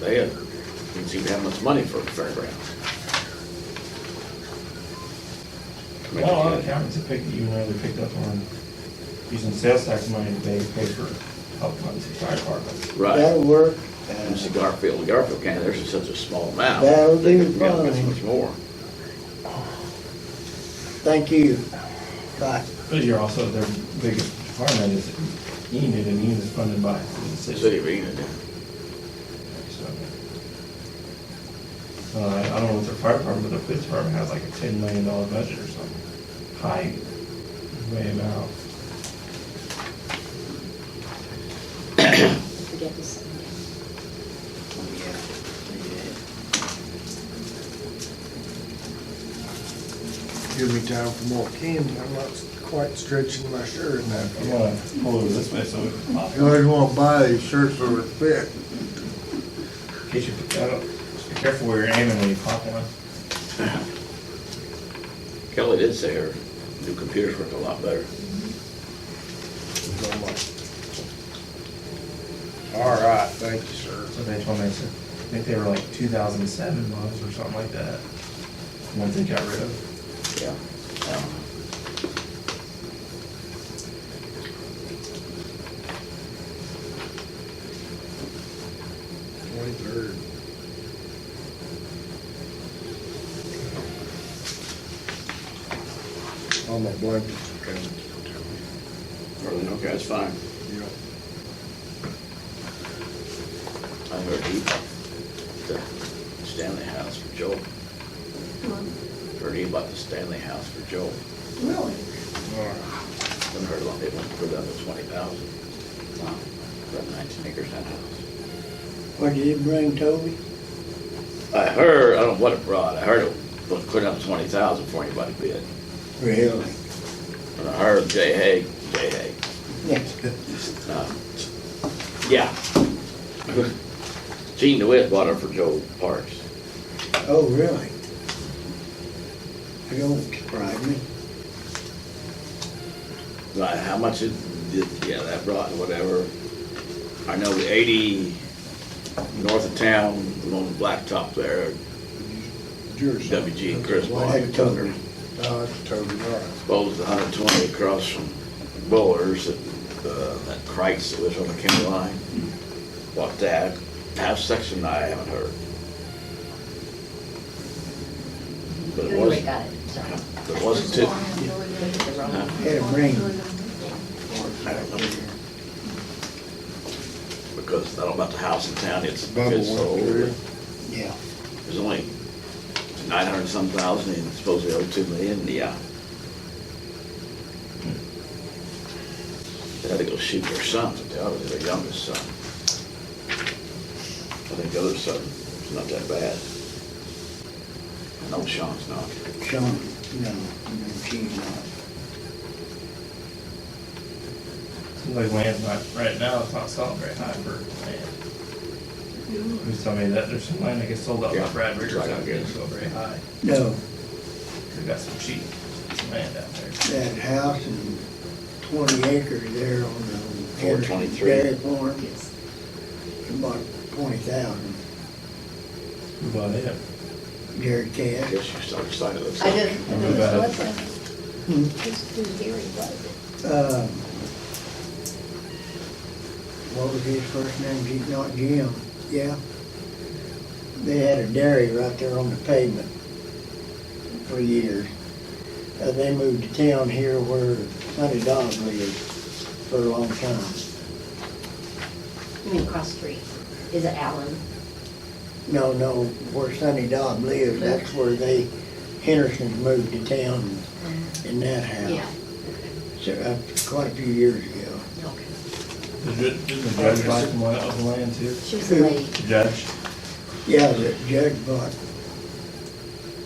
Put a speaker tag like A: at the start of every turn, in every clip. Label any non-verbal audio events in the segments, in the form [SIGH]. A: They had, didn't seem to have much money for fairgrounds. I mean,
B: Not a lot of counties have picked, even though they picked up on using sales tax money to pay pay for health funds, and fire departments.
A: Right,
C: That'll work.
A: and see Garfield, Garfield County, there's just such a small amount.
C: That'll
A: They
C: do
A: could've got this
C: fine.
A: Much more.
C: Thank you. Bye.
B: But you're also their biggest department is Enid, and Enid is funded by the
A: The
B: city.
A: city of Enid,
B: So, Uh, I don't know what their fire department, but the police department has like a ten million dollar budget or something, high, way amount.
D: forget this.
E: Give me time for more candy, I'm not quite stretching my shirt enough.
B: I'm gonna pull over this way, so we can pop
E: You
B: it.
E: always want to buy these shirts for respect.
B: in case you, I don't, just be careful where you're aiming when you pop one.
A: yeah. Kelly did say her new computers work a lot better.
E: All right, thank you, sir.
B: So they told me, I said, I think they were like two thousand and seven models or something like that, ones they got rid of.
A: Yeah. Um,
E: Twenty-third. All my blankets are coming.
A: Berlin, okay, that's fine.
E: Yeah.
A: I heard he, the Stanley House for Joel. Heard he bought the Stanley House for Joel.
D: Really?
A: Then heard a lot, they went for down to twenty thousand. About nineteen acres that house.
C: What did you bring, Toby?
A: I heard, I don't know what it brought, I heard it was put up twenty thousand before anybody bid.
C: Really?
A: And I heard Jay Haig, Jay Haig,
C: Yes.
A: um, yeah. [LAUGHS] Gene DeWitt bought it for Joel Parks.
C: Oh, really? It don't surprise me.
A: Right, how much it, did- yeah, that brought, whatever. I know the eighty north of town, along the blacktop there,
E: Yours.
A: WG and Chris
C: Well,
A: bought
C: I
A: it.
C: told her,
E: No, it's totally all right.
A: Bowles hundred twenty across from Bowlers, that, uh, that Kreitz that lives on the county line. Bought that, half section I haven't heard. But it
D: Anyway,
A: wasn't,
D: got it, sorry.
A: it wasn't too,
C: had a ring.
A: I don't know. Because I don't know about the house in town, it's,
E: Bubble
A: it's
E: went
A: sold.
E: through.
C: Yeah.
A: There's only nine hundred some thousand and supposedly over two million, yeah. They had to go shoot their son, to tell it was their youngest son. I think the other son was not that bad. No, Sean's not.
C: Sean, no, no, she's not.
B: Seems like land's not, right now, it's not selling very high for land. Who's telling me that there's some land that gets sold up by
A: Yeah,
B: Brad Riggers,
A: right, I
B: that didn't
A: guess.
B: go very high.
C: No,
B: They got some cheap land out there.
C: that house and twenty acres there on the.
A: 423.
C: Dairy farm, about twenty thousand.
B: Who bought it?
C: Gary
A: I
C: Cash.
A: guess you started signing those.
D: I did, I did,
B: About it.
D: what's that?
C: Hmm.
D: Who's, who's Gary, what is it?
C: Um, What was his first name? He- Not Jim, yeah. They had a dairy right there on the pavement for years. Uh, they moved to town here where Honey Dog lived for a long time.
D: You mean cross street? Is it Allen?
C: No, no, where Sonny Dodd lived, that's where they, Henderson's moved to town in that
D: Yeah,
C: house. So, uh, quite a few years ago.
D: okay.
B: Did ju- did the judge buy some land, of the land too?
D: She was the lady.
B: The Judge?
C: Yeah, the judge bought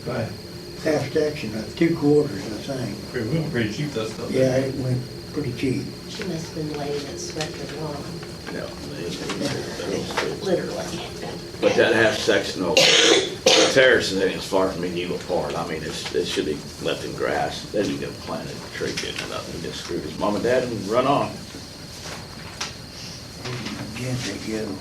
B: Right.
C: half section, uh, two quarters, I think.
B: Pretty, we went pretty cheap those stuff.
C: Yeah, it went pretty cheap.
D: She must have been the lady that swept the lawn,
A: No, they- they- they-
D: literally.
A: But that half section of the terrace is as far from medieval part. I mean, it's, it should be left in grass. Then you go plant a tree, get it up and just screw his mom and dad and run on.
C: Gently, you know.